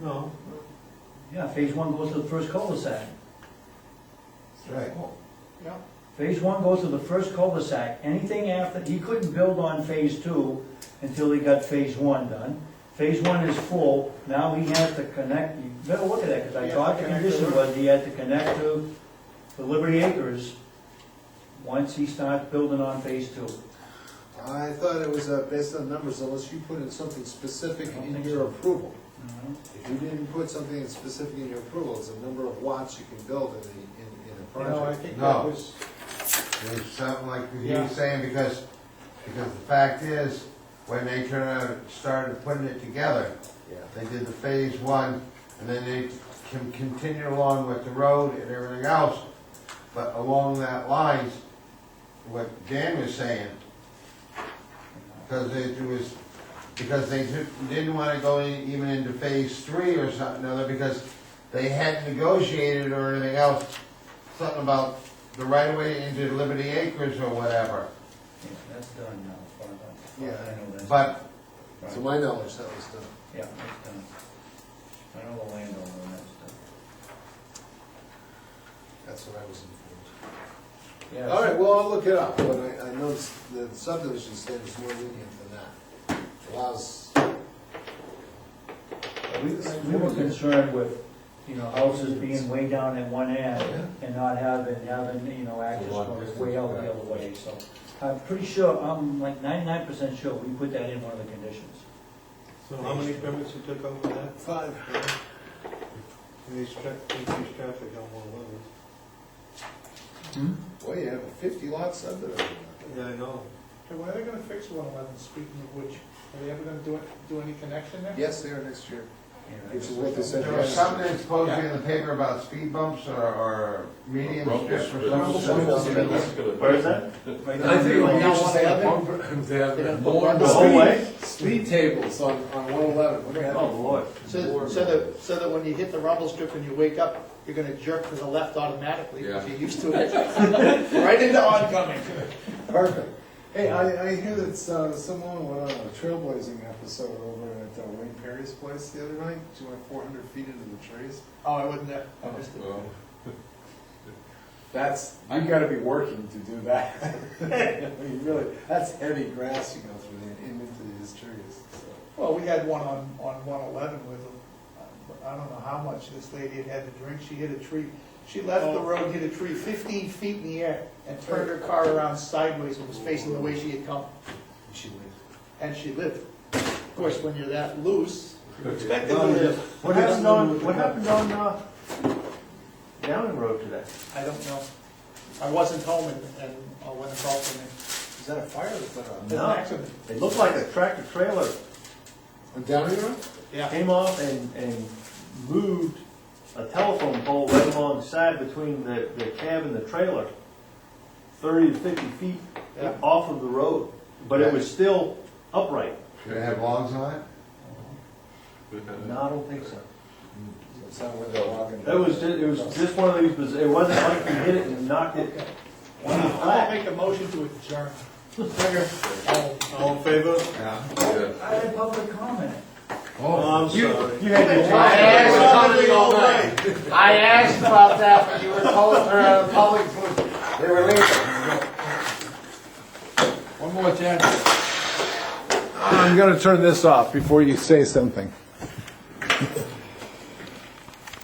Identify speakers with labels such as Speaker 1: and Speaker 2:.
Speaker 1: No,
Speaker 2: Yeah, phase one goes to the first cul-de-sac.
Speaker 3: Right.
Speaker 1: yeah,
Speaker 2: Phase one goes to the first cul-de-sac. Anything after, he couldn't build on phase two until he got phase one done. Phase one is full, now he has to connect, you better look at that, because I
Speaker 1: Yeah,
Speaker 2: thought the
Speaker 1: connect
Speaker 2: condition
Speaker 1: to-
Speaker 2: was he had to connect to the Liberty Acres once he starts building on phase two.
Speaker 3: I thought it was uh, based on numbers unless you put in something specific
Speaker 2: I don't
Speaker 3: in
Speaker 2: think
Speaker 3: your
Speaker 2: so.
Speaker 3: approval.
Speaker 2: Mhm.
Speaker 3: If you didn't put something in specific in your approval, it's a number of watts you can build in the, in, in a
Speaker 1: you know, I
Speaker 3: project.
Speaker 1: think that
Speaker 4: No.
Speaker 1: was,
Speaker 4: There's something like he
Speaker 1: Yeah.
Speaker 4: was saying, because, because the fact is, when they turned out, started putting it together,
Speaker 3: Yeah.
Speaker 4: they did the phase one, and then they can continue along with the road and everything else. But along that lines, what Dan was saying, because it was, because they didn't- didn't wanna go in- even into phase three or something other, because they hadn't negotiated or anything else, something about the right of way into Liberty Acres or whatever.
Speaker 2: Yeah, That's done now, as far as I- I
Speaker 3: Yeah,
Speaker 2: know that's-
Speaker 4: But,
Speaker 2: Right.
Speaker 3: To my knowledge, that was done.
Speaker 2: Yeah, that's done. I know the landowner, and that's done.
Speaker 3: That's what I was informed.
Speaker 2: Yeah,
Speaker 3: All right, well, I'll look it up, but I, I noticed the subdivision standard's more lenient than that. Allows,
Speaker 2: We, we were concerned with, you know, houses being way down at one end and not having, having, you know, access going way out the other way, so. I'm pretty sure, I'm like ninety-nine percent sure we put that in one of the conditions.
Speaker 1: so how many permits you took over that? Five. Increase tra- increase traffic on one level.
Speaker 3: boy, you have a fifty lot subdivision.
Speaker 1: Yeah, I know.
Speaker 5: Okay, when are they gonna fix one eleven, speaking of which, are they ever gonna do it, do any connection there?
Speaker 3: Yes, they are next year, which is what they said.
Speaker 4: there was something that's supposed to be in the paper about speed bumps or, or medium strips or something.
Speaker 6: Where is that?
Speaker 3: I think
Speaker 1: Right
Speaker 3: what
Speaker 1: now,
Speaker 3: you should say, I think-
Speaker 6: They have
Speaker 3: more
Speaker 6: The whole way?
Speaker 3: Speed tables on, on one eleven, what do you have?
Speaker 6: Oh, Lord.
Speaker 5: So, so that, so that when you hit the rumble strip and you wake up, you're gonna jerk to the left automatically, because you're used to it. Right into oncoming.
Speaker 7: Perfect. Hey, I, I hear that uh, someone went on a trailblazing episode over at uh, Wayne Perry's place the other night. She went 400 feet into the trees.
Speaker 5: Oh, I wasn't there, I missed it.
Speaker 7: That's you got to be working to do that. you really, that's heavy grass you go through and in- into these trees. So.
Speaker 5: Well, we had one on, on one eleven with, a- I don't know how much this lady had had to drink, she hit a tree. She left the road, hit a tree fifteen feet in the air, and turned her car around sideways and was facing the way she had come.
Speaker 3: She went.
Speaker 5: and she lived. Of course, when you're that loose, you're expected to
Speaker 1: Well, yeah.
Speaker 5: live.
Speaker 6: What happened on, what happened on, uh, Downing Road today?
Speaker 5: I don't know. I wasn't home and, and uh, when the call came in,
Speaker 3: Is that a fire that's put out?
Speaker 5: it was an accident.
Speaker 6: It looked like a tractor trailer
Speaker 3: On Downey Road?
Speaker 5: Yeah,
Speaker 6: came off and, and moved a telephone pole right alongside between the, the cab and the trailer, thirty to fifty feet
Speaker 5: Yeah.
Speaker 6: off of the road, but it was still upright.
Speaker 4: Should it have logs on it?
Speaker 6: No, I don't think so.
Speaker 3: It's not where they're logging.
Speaker 6: It was, ju- it was just one of these, biz- it wasn't like you hit it and knocked it.
Speaker 5: I'm gonna make a motion to adjourn. Oh,
Speaker 1: All in favor?
Speaker 2: I had public comment.
Speaker 1: Oh, I'm sorry.
Speaker 6: You had your
Speaker 4: I asked about
Speaker 3: Something all night.
Speaker 4: I asked about that, but you were told, or, uh, public, they were leaving.
Speaker 3: One more chance.
Speaker 7: I'm going to turn this off before you say something.